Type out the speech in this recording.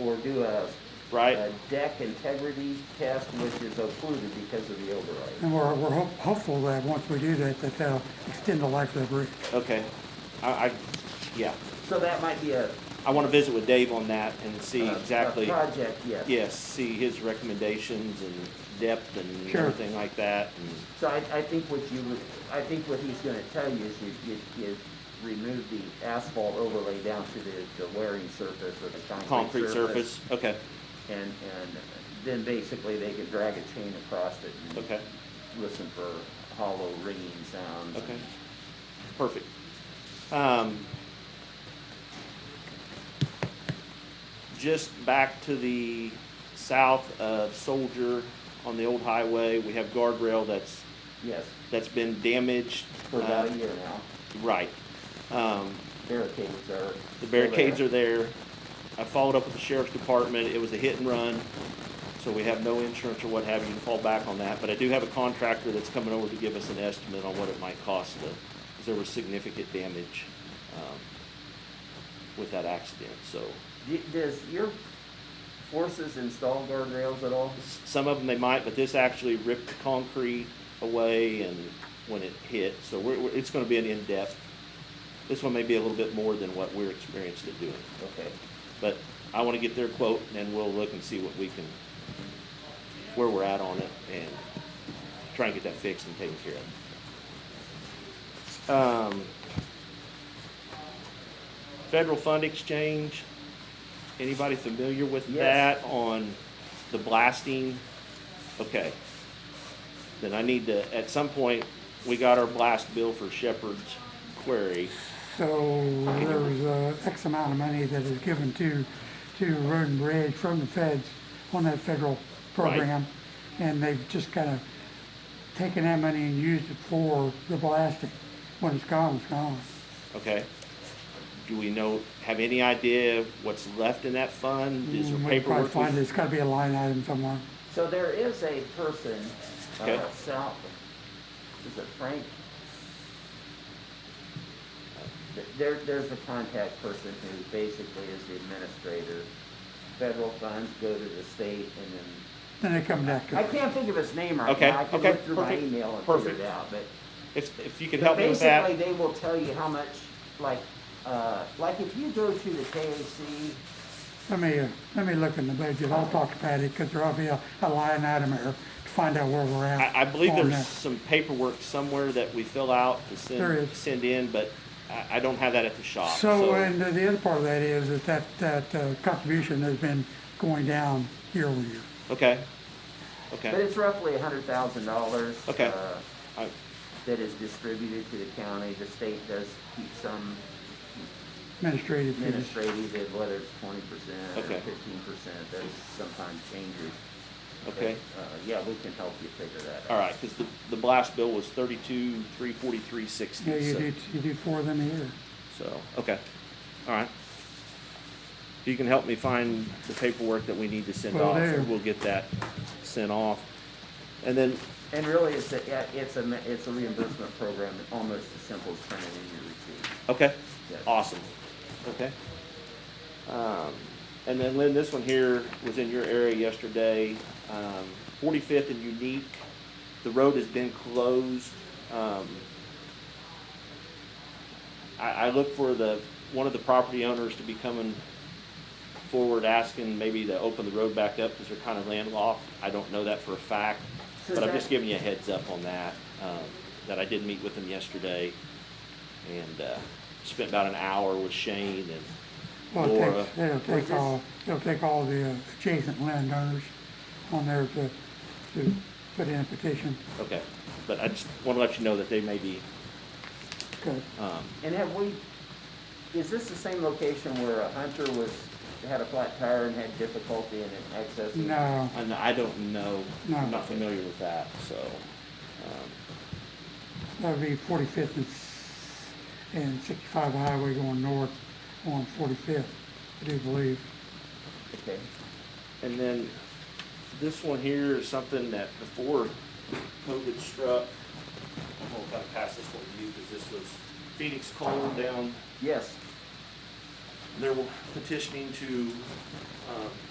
or do a, right? a deck integrity test, which is occluded because of the override. And we're, we're hop- hopeful that once we do that, that that'll extend the life of the bridge. Okay. I, I, yeah, So that might be a. I want to visit with Dave on that and see a- a exactly, Project, yes. yes, see his recommendations and depth and Sure. everything like that. and- So I, I think what you would, I think what he's gonna tell you is you, you, you remove the asphalt overlay down to the, the wearing surface or the Concrete surface, okay, And, and then basically they could drag a chain across it and okay, listen for hollow ringing sounds. okay. Perfect. Um, just back to the south of Soldier on the old highway, we have guardrail that's, Yes, that's been damaged. for about a year now. uh, Right. Um, Barricades are. The barricades are there. I followed up with the sheriff's department. It was a hit and run, so we have no insurance or what have you to fall back on that. But I do have a contractor that's coming over to give us an estimate on what it might cost to, because there was significant damage um, with that accident. So D- Does your forces install guardrails at all? s- some of them they might, but this actually ripped the concrete away and when it hit. So we're, we're- it's going to be an in-depth. This one may be a little bit more than what we're experienced at doing. Okay. But I want to get their quote, and then we'll look and see what we can, where we're at on it, and try and get that fixed and taken care of. Um, Federal Fund Exchange, anybody familiar with Yes. that on the blasting? Okay. Then I need to, at some point, we got our blast bill for Shepherd's Quarry. So there was uh, X amount of money that is given to, to Road and Bridge from the feds on that federal program. And they've just kind of taken that money and used it for the blasting. When it's gone, it's gone. Okay. Do we know, have any idea what's left in that fund? Is And there we'll Mm, probably paperwork? find it. with- It's gotta be a line item somewhere. So there is a person, Okay. uh, south, is it Frank? Th- There, there's a contact person who basically is the administrator. Federal funds go to the state and then, Then they come back. to I it. can't think of his name right Okay, now. I can okay, look through my perfect, email and figure perfect. it out, but. If, if you could but help me with that, Basically, they will tell you how much, like, uh, like if you go to the KAC, Let me, uh, let me look in the budget. I'll talk to Patty, because there'll be a, a line item here to find out where we're at. I, I believe on there's that. some paperwork somewhere that we fill out to There send, is. send in, but I, I don't have that at the shop, So, um, so. and the other part of that is that that, that uh, contribution has been going down year over year. Okay. but Okay. it's roughly a hundred thousand dollars. Okay. Uh, I- that is distributed to the county. The state does keep some Administrative fees. administrative, and whether it's twenty percent or Okay. fifteen percent, that sometimes changes. But, Okay. Uh, yeah, we can help you figure that out. All right, because the, the blast bill was thirty-two, three forty-three, Yeah, sixty, you so, do, you do four of them a year. so, okay. All right. If you can help me find the paperwork that we need to send Will off, do. we'll get that sent off. And then And really, it's a, yeah, it's a, me- it's a reimbursement program, almost as simple as printing in your receipt. Okay. Yes. Awesome. Okay. Um, and then Lynn, this one here was in your area yesterday. Um, 45th and Unique. The road has been closed. Um, I, I look for the one of the property owners to be coming forward asking maybe to open the road back up because they're kind of landlocked. I don't know that for a fact, So but I'm that- just giving you a heads up on that. Um, that I did meet with them yesterday and uh, spent about an hour with Shane and Well, it Laura. takes, it'll take all, it'll take all the uh, adjacent landowners on there to, to put in a petition. Okay, but I just want to let you know that they may be, Good. um, And have we, is this the same location where a hunter was, had a flat tire and had difficulty in accessing? No, and I don't know, I'm No. not familiar with that, so. um, that'd be forty-fifth and, s- and sixty-five highway going north on forty-fifth, I do believe. Okay. And then this one here is something that before COVID struck, I'm going to pass this one to you because this was Phoenix Coal down Yes, They're petitioning to, um,